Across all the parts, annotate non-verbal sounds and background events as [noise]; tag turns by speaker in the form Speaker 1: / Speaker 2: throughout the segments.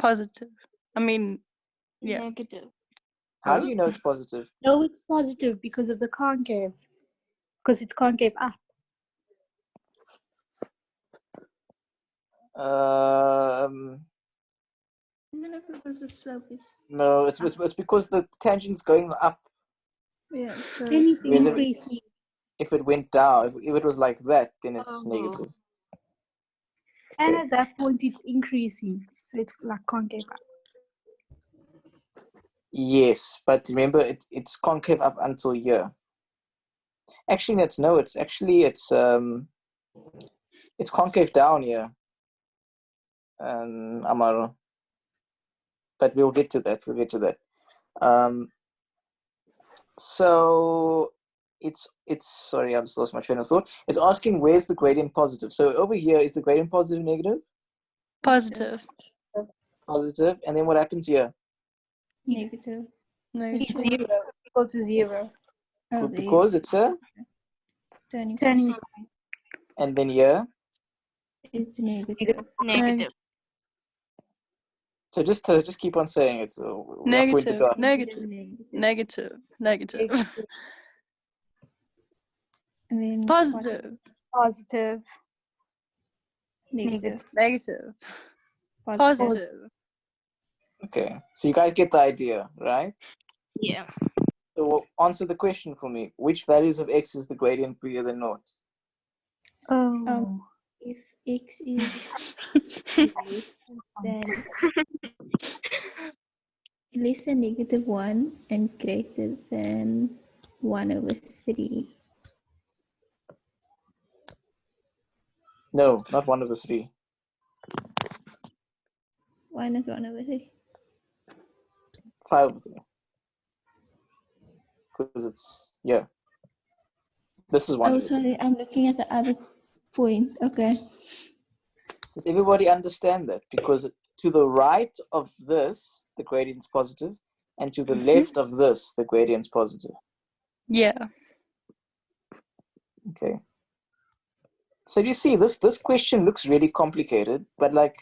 Speaker 1: positive. I mean, Yeah.
Speaker 2: Negative.
Speaker 3: How do you know it's positive?
Speaker 4: No, it's positive because of the concave. Because it's concave up.
Speaker 3: Um,
Speaker 2: Whenever it was a surface.
Speaker 3: no, it's, it's, it's because the tangent's going up.
Speaker 2: Yeah.
Speaker 4: Then
Speaker 3: Is
Speaker 4: it's
Speaker 3: it-
Speaker 4: increasing.
Speaker 3: If it went down, if, if it was like that, then it's
Speaker 2: Uh-huh.
Speaker 3: negative.
Speaker 4: And at that point, it's increasing. So it's like concave up.
Speaker 3: Yes, but remember, it, it's concave up until here. Actually, that's no. It's actually it's um, it's concave down here. Um, Amaro. But we'll get to that. We'll get to that. Um, so it's it's sorry, I just lost my train of thought. It's asking where's the gradient positive. So over here is the gradient positive, negative,
Speaker 1: positive.
Speaker 3: positive, and then what happens here?
Speaker 4: It's,
Speaker 2: Negative.
Speaker 1: No.
Speaker 4: it's zero. Equal to zero.
Speaker 2: Oh, there you go.
Speaker 3: Because it's a,
Speaker 2: Turning
Speaker 4: Turning
Speaker 3: and then here.
Speaker 2: it's negative.
Speaker 1: Negative.
Speaker 3: So just to just keep on saying it's uh, we're not going to
Speaker 1: Negative.
Speaker 3: dance.
Speaker 1: Negative. Negative. Negative.
Speaker 2: And then
Speaker 1: Positive.
Speaker 4: positive.
Speaker 2: Negative.
Speaker 1: Negative. Positive.
Speaker 3: Okay, so you guys get the idea, right?
Speaker 5: Yeah.
Speaker 3: So well, answer the question for me: Which values of x is the gradient bigger than naught?
Speaker 4: Oh.
Speaker 2: If x is
Speaker 3: [laughs]
Speaker 2: then less than negative one and greater than one over three.
Speaker 3: No, not one of the three.
Speaker 2: One is one over three.
Speaker 3: Five of them. Because it's yeah. This is one.
Speaker 2: Oh,
Speaker 3: of the three.
Speaker 2: sorry, I'm looking at the other point. Okay.
Speaker 3: Does everybody understand that? Because to the right of this, the gradient's positive, and to the left of this, the gradient's positive.
Speaker 1: Yeah.
Speaker 3: Okay. So you see, this this question looks really complicated, but like,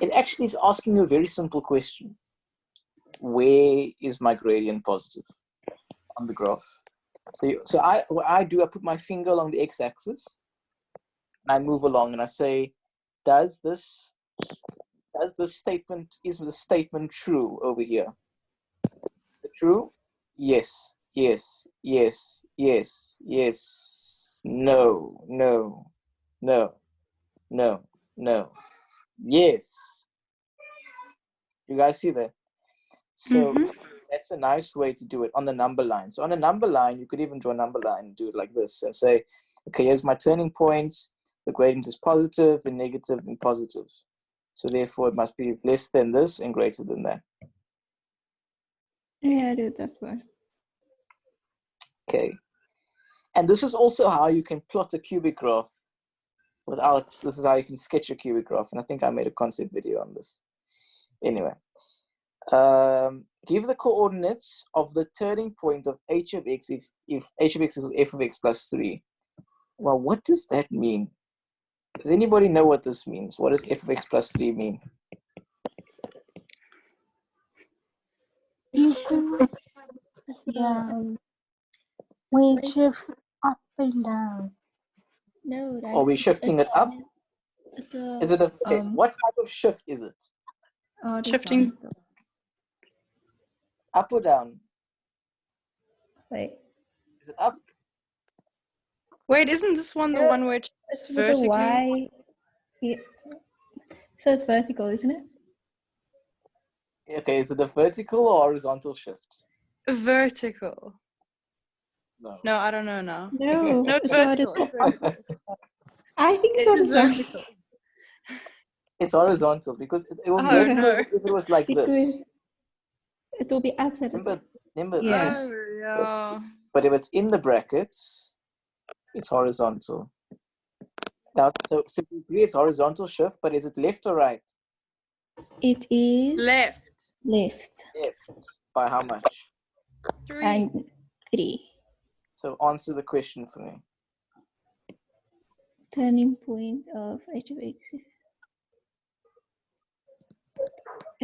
Speaker 3: it actually is asking you a very simple question: Where is my gradient positive on the graph? So you, so I what I do I put my finger along the x-axis, and I move along, and I say, does this does this statement is the statement true over here? True? Yes, yes, yes, yes, yes, no, no, no, no, no, yes. You guys see that? So that's a nice way to do it on the number line. So on a number line, you could even draw a number line and do it like this and say, okay, here's my turning points. The gradient is positive, the negative, and positive. So therefore, it must be less than this and greater than that.
Speaker 2: Yeah, I do that one.
Speaker 3: Okay. And this is also how you can plot a cubic graph without, this is how you can sketch a cubic graph. And I think I made a concept video on this. Anyway, um, give the coordinates of the turning point of h of x if, if h of x is f of x plus 3. Well, what does that mean? Does anybody know what this means? What does f of x plus 3 mean?
Speaker 2: um,
Speaker 4: down. When it shifts up and down.
Speaker 2: No, right.
Speaker 3: Are we Oh, shifting it up?
Speaker 2: It's a,
Speaker 3: Is it a, okay,
Speaker 2: Um,
Speaker 3: what type of shift is it?
Speaker 1: Shifting.
Speaker 3: Up or down?
Speaker 2: Wait.
Speaker 3: Is it up?
Speaker 1: Wait, isn't this one the
Speaker 2: Yeah,
Speaker 1: one where it's
Speaker 2: It's with a
Speaker 1: vertically?
Speaker 2: Y. Yeah. So it's vertical, isn't it?
Speaker 3: Okay, is it a vertical or horizontal shift?
Speaker 1: Vertical.
Speaker 3: No.
Speaker 1: No, I don't know now.
Speaker 2: No.
Speaker 1: No, it's
Speaker 2: I thought
Speaker 1: vertical.
Speaker 2: it-
Speaker 1: It's vertical.
Speaker 2: I think
Speaker 1: It is
Speaker 2: it's vertical.
Speaker 1: vertical.
Speaker 3: It's horizontal because it, it will
Speaker 1: Oh,
Speaker 3: make
Speaker 1: no.
Speaker 3: if it was like this.
Speaker 2: Because it will be outside. of
Speaker 3: Remember, remember
Speaker 2: Yes.
Speaker 3: this.
Speaker 1: Oh, yeah.
Speaker 3: But if it's in the brackets, it's horizontal. Now, so, so we agree it's horizontal shift, but is it left or right?
Speaker 2: It is
Speaker 1: Left.
Speaker 2: left
Speaker 3: Left. By how much?
Speaker 1: Three.
Speaker 2: and three.
Speaker 3: So answer the question for me.
Speaker 2: Turning point of h of x is